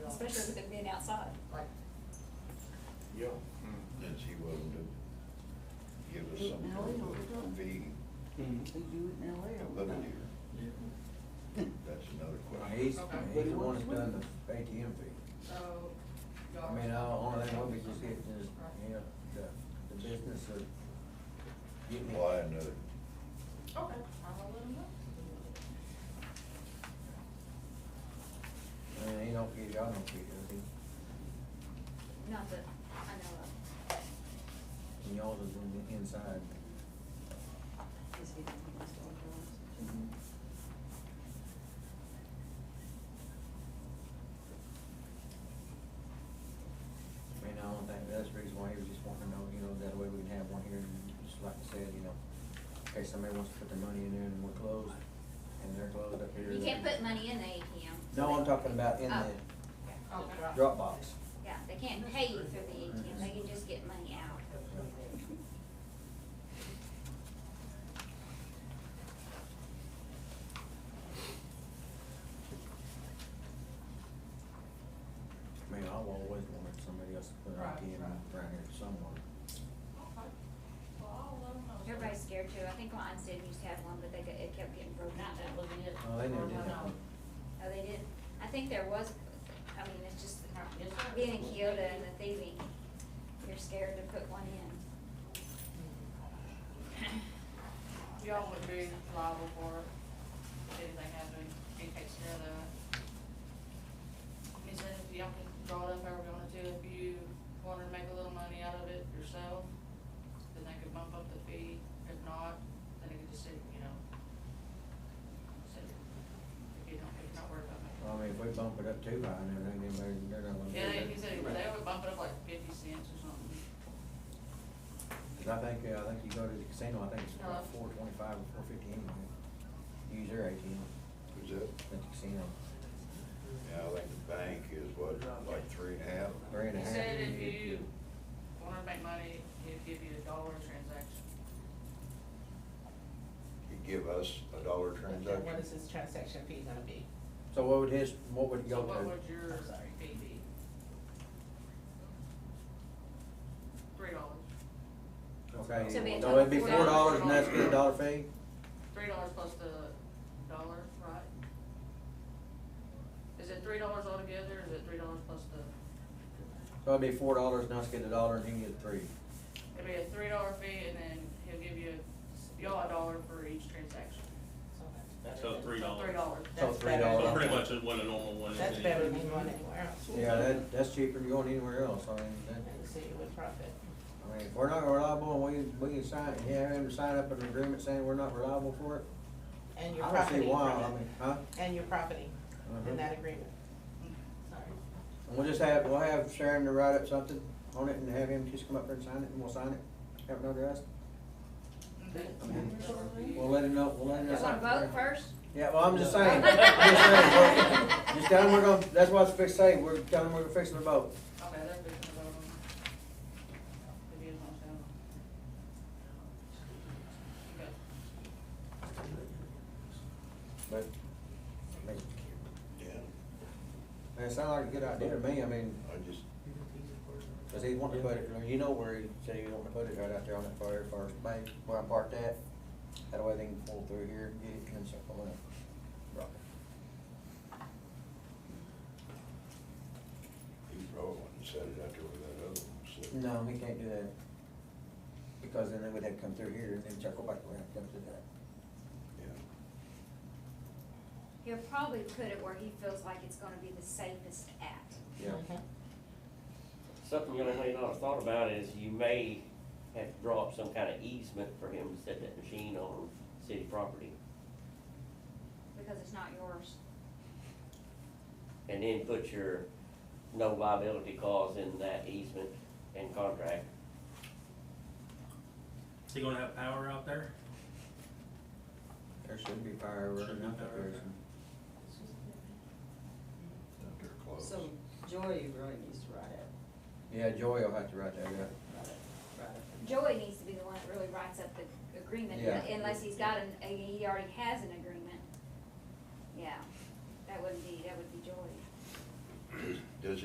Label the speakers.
Speaker 1: especially with it being outside.
Speaker 2: like,
Speaker 3: Yeah. And she willing to give us
Speaker 4: Eat
Speaker 3: some
Speaker 4: now,
Speaker 3: sort
Speaker 4: we don't
Speaker 3: of
Speaker 4: know.
Speaker 3: fee
Speaker 4: They do it now, they
Speaker 3: to
Speaker 4: don't.
Speaker 3: live
Speaker 4: know.
Speaker 3: here. That's another
Speaker 5: Well,
Speaker 3: question.
Speaker 5: he's,
Speaker 2: Okay.
Speaker 5: he's the one that's done the ATM fee.
Speaker 2: so. y'all-
Speaker 5: I mean, I, only thing we could just get is, you know, the, the business of getting.
Speaker 3: Why another,
Speaker 2: Okay, I'll let them know.
Speaker 5: I mean, he don't get, y'all don't get, does he?
Speaker 1: Not that I know of.
Speaker 5: And y'all is in the inside.
Speaker 4: Is he the one that's all girls?
Speaker 5: I mean, I don't think, that's the reason why he was just wanting to know, you know, that way we can have one here, and just like I said, you know, in case somebody wants to put their money in there and we're closed, and they're closed up here.
Speaker 1: You can't put money in the ATM. so
Speaker 5: No,
Speaker 1: they-
Speaker 5: I'm talking about in
Speaker 1: Oh.
Speaker 5: the
Speaker 2: Okay.
Speaker 5: Dropbox.
Speaker 1: Yeah, they can't pay you through the ATM, they can just get money out.
Speaker 5: I mean, I've always wanted somebody else to put an
Speaker 2: Right,
Speaker 5: ATM
Speaker 2: right.
Speaker 5: around here somewhere.
Speaker 2: Okay. Well, I'll let 'em know.
Speaker 1: Everybody's scared too, I think Lions did used to have one, but they, got- it kept getting broken
Speaker 2: Not
Speaker 1: up.
Speaker 2: that living it.
Speaker 5: Oh, they never did that
Speaker 2: No.
Speaker 5: one.
Speaker 1: Oh, they did, I think there was, I mean, it's just,
Speaker 2: Yes, sir.
Speaker 1: being in Kyoto and the thieving, you're scared to put one in.
Speaker 2: Y'all would be liable for it, if anything happened, he takes care of that. He said if y'all can draw it up however you wanted to, if you wanted to make a little money out of it yourself, then they could bump up the fee, if not, then it could just sit, you know. sit. If you don't, if you're not worried about making.
Speaker 5: Well, I mean, if we bump it up too high and everything, then they're- they're not gonna. do
Speaker 2: Yeah,
Speaker 5: that.
Speaker 2: he said, they would bump it up like fifty cents or something.
Speaker 5: 'Cause I think, uh, I think you go to the casino, I think it's about
Speaker 2: Uh-huh.
Speaker 5: four twenty-five or four fifty anyway. Use their ATM
Speaker 3: was that,
Speaker 5: at the casino.
Speaker 3: yeah, I think the bank is what, like three and a half?
Speaker 5: Three and a
Speaker 2: He
Speaker 5: half.
Speaker 2: said if you wanted to make money, he'd give you a dollar a transaction.
Speaker 3: He give us a dollar
Speaker 6: And what is
Speaker 3: transaction?
Speaker 6: his transaction fee gonna be?
Speaker 5: So what would his, what
Speaker 2: So
Speaker 5: would go
Speaker 2: what
Speaker 5: to?
Speaker 2: would your
Speaker 6: I'm sorry.
Speaker 2: fee be? Three dollars.
Speaker 1: So it'd be
Speaker 5: Okay,
Speaker 1: a
Speaker 5: so it'd be
Speaker 1: total
Speaker 5: four
Speaker 1: of
Speaker 5: dollars
Speaker 2: $4.
Speaker 5: and that's the dollar fee?
Speaker 2: Three dollars plus the dollar, right? Is it three dollars altogether, or is it three dollars plus the,
Speaker 5: So it'd be four dollars and us get a dollar and he gets three.
Speaker 2: it'd be a three dollar fee, and then he'll give you, y'all a dollar for each transaction.
Speaker 6: So that's
Speaker 7: So
Speaker 6: better
Speaker 7: three
Speaker 6: than-
Speaker 2: So three
Speaker 7: dollars.
Speaker 2: dollars.
Speaker 5: So
Speaker 6: That's
Speaker 5: three
Speaker 6: better
Speaker 5: dollars.
Speaker 7: So
Speaker 6: than-
Speaker 7: pretty much is what a normal one is.
Speaker 6: That's
Speaker 7: anyway.
Speaker 6: better than going anywhere else.
Speaker 5: Yeah, that, that's cheaper than going anywhere else, I mean, that.
Speaker 6: And the city would profit.
Speaker 5: I mean, if we're not reliable, and we, we can sign, yeah, have him sign up an agreement saying we're not reliable for it.
Speaker 6: And you're
Speaker 5: I don't see
Speaker 6: profiting
Speaker 5: why, I
Speaker 6: from
Speaker 5: mean,
Speaker 6: it.
Speaker 5: huh?
Speaker 6: And you're profiting
Speaker 5: Uh-huh.
Speaker 6: in that agreement. Sorry.
Speaker 5: And we'll just have, we'll have Sharon to write up something on it and have him just come up there and sign it and we'll sign it, have it notarized. We'll let him know, we'll let him know.
Speaker 1: You wanna vote first?
Speaker 5: Yeah, well, I'm just saying, I'm just saying, vote. just tell him we're gonna, that's what it's fixed to say, we're, tell him we're fixing to vote.
Speaker 2: Okay, that's good for the bottom. If you don't sound. Okay.
Speaker 5: But, I mean,
Speaker 3: Yeah,
Speaker 5: it sounded like a good idea to me, I mean,
Speaker 3: I just,
Speaker 5: Cause he wanted to put it, I mean, you know where he said he wanted to put it, right out there on that fire, first bank, where I parked at. That way they can pull through here, get it, and then circle in. Rock it.
Speaker 3: he probably wouldn't set it out there with that other one, so.
Speaker 5: No, he can't do that. Because then they would have to come through here and then circle back around, come to that.
Speaker 3: Yeah,
Speaker 1: He'll probably put it where he feels like it's gonna be the safest at.
Speaker 5: Yeah.
Speaker 8: Something you may not have thought about is you may have to draw up some kind of easement for him to set that machine on city property.
Speaker 1: because it's not yours.
Speaker 8: And then put your no liability clause in that easement and contract.
Speaker 7: Is he gonna have power out there?
Speaker 5: There should be fire, we're
Speaker 7: Should be
Speaker 5: not
Speaker 7: fire, okay.
Speaker 3: out there close.
Speaker 4: So Joy really needs to write it,
Speaker 5: Yeah, Joey will have to write that up.
Speaker 4: write it, write it.
Speaker 1: Joey needs to be the one that really writes up the agreement,
Speaker 5: Yeah.
Speaker 1: unless he's got an, he already has an agreement. Yeah, that wouldn't be, that would be Joey.
Speaker 3: Just